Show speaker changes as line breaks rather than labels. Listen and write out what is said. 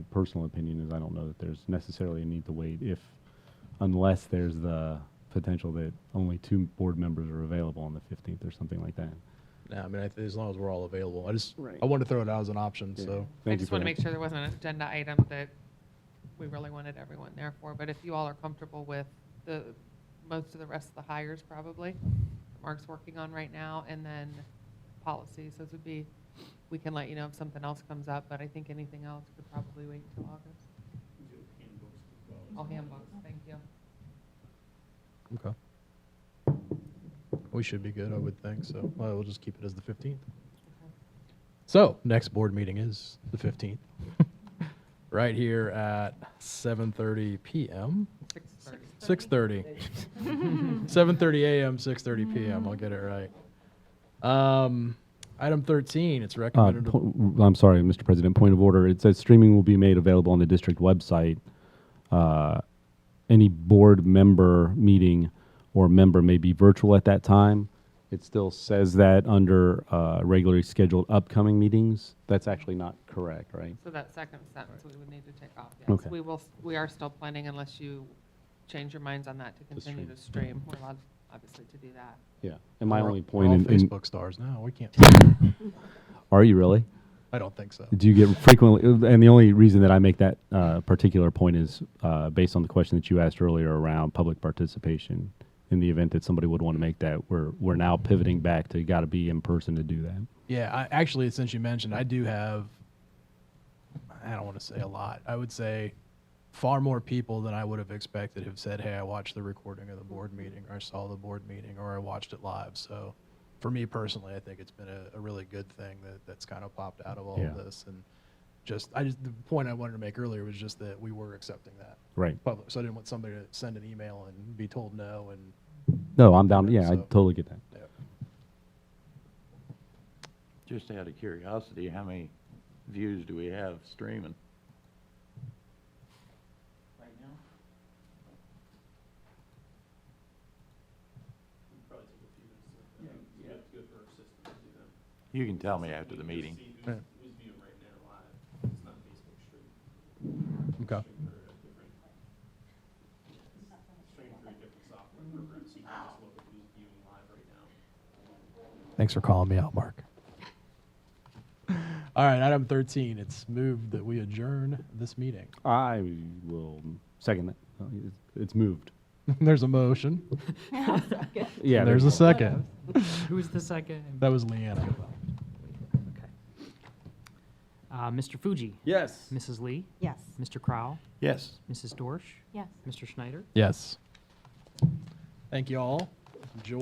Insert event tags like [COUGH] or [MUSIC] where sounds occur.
personal opinion is I don't know that there's necessarily a need to wait if, unless there's the potential that only two board members are available on the 15th or something like that.
Yeah, I mean, I th- as long as we're all available, I just
Right.
I wanted to throw it out as an option.
Yeah.
So
Thank
I
you
just
for
want
that.
to make sure there wasn't an agenda item that we really wanted everyone there for, but if you all are comfortable with the, most of the rest of the hires probably, that Mark's working on right now, and then policies, those would be, we can let you know if something else comes up, but I think anything else could probably wait till August. All handbooks, thank you.
okay, we should be good, I would think. So well, we'll just keep it as the fifteenth. So next board meeting is the fifteenth, [LAUGHS] right here at seven thirty p.m.
Six thirty.
Six thirty. Seven thirty a.m. Six thirty p.m. I'll get it right. Um, item thirteen. It's
Uh,
recommended.
po- I'm sorry, Mr. President, point of order. It says streaming will be made available on the district website. Uh, Any board member meeting or member may be virtual at that time. It still says that under uh, regularly scheduled upcoming meetings. That's actually not correct, right?
So that second sentence we would need to take off, yes.
Okay.
We will, we are still planning unless you change your minds on that to continue to stream. We're allowed, obviously, to do that.
Yeah. And my
We're-
only
we're
point
all
in, in-
Facebook stars now.
[LAUGHS]
We can't.
are you really?
I don't think so.
Do you get frequently, and the only reason that I make that uh, particular point is uh, based on the question that you asked earlier around public participation. In the event that somebody would want to make that, we're, we're now pivoting back to got to be in person to do that.
Yeah, I, actually, since you mentioned, I do have. I don't want to say a lot. I would say far more people than I would have expected have said, "Hey, I watched the recording of the board meeting, or I saw the board meeting, or I watched it live." So, for me personally, I think it's been a, a really good thing that that's kind of popped out of all
Yeah.
of this. And just, I just the point I wanted to make earlier was just that we were accepting that
Right.
public. So I didn't want somebody to send an email and be told no. And
No, I'm down. Yeah, I
So-
totally get that.
yeah.
Just out of curiosity, how many views do we have streaming?
right now? Probably take a few minutes to look that up. We have to go through our system to do that.
You can tell me after the meeting.
See
Yeah.
who's, who's viewing right now live. It's not Facebook stream.
okay.
Stream through a different, stream through a different software program, so you can just look at who's viewing live right now.
Thanks for calling me out, Mark. All right, item 13. It's moved that we adjourn this meeting.
I will second that. Uh, it's- It's moved.
[LAUGHS] There's a motion.
Yeah.
There's a
second.
second.
Who's the second?
That was Leanna.
Okay. Uh, Mr. Fuji?
Yes.
Mrs. Lee?
Yes.
Mr. Crowell?
Yes.
Mrs. Dorsch?
Yes.
Mr. Schneider?
Yes. Thank you all. Enjoy.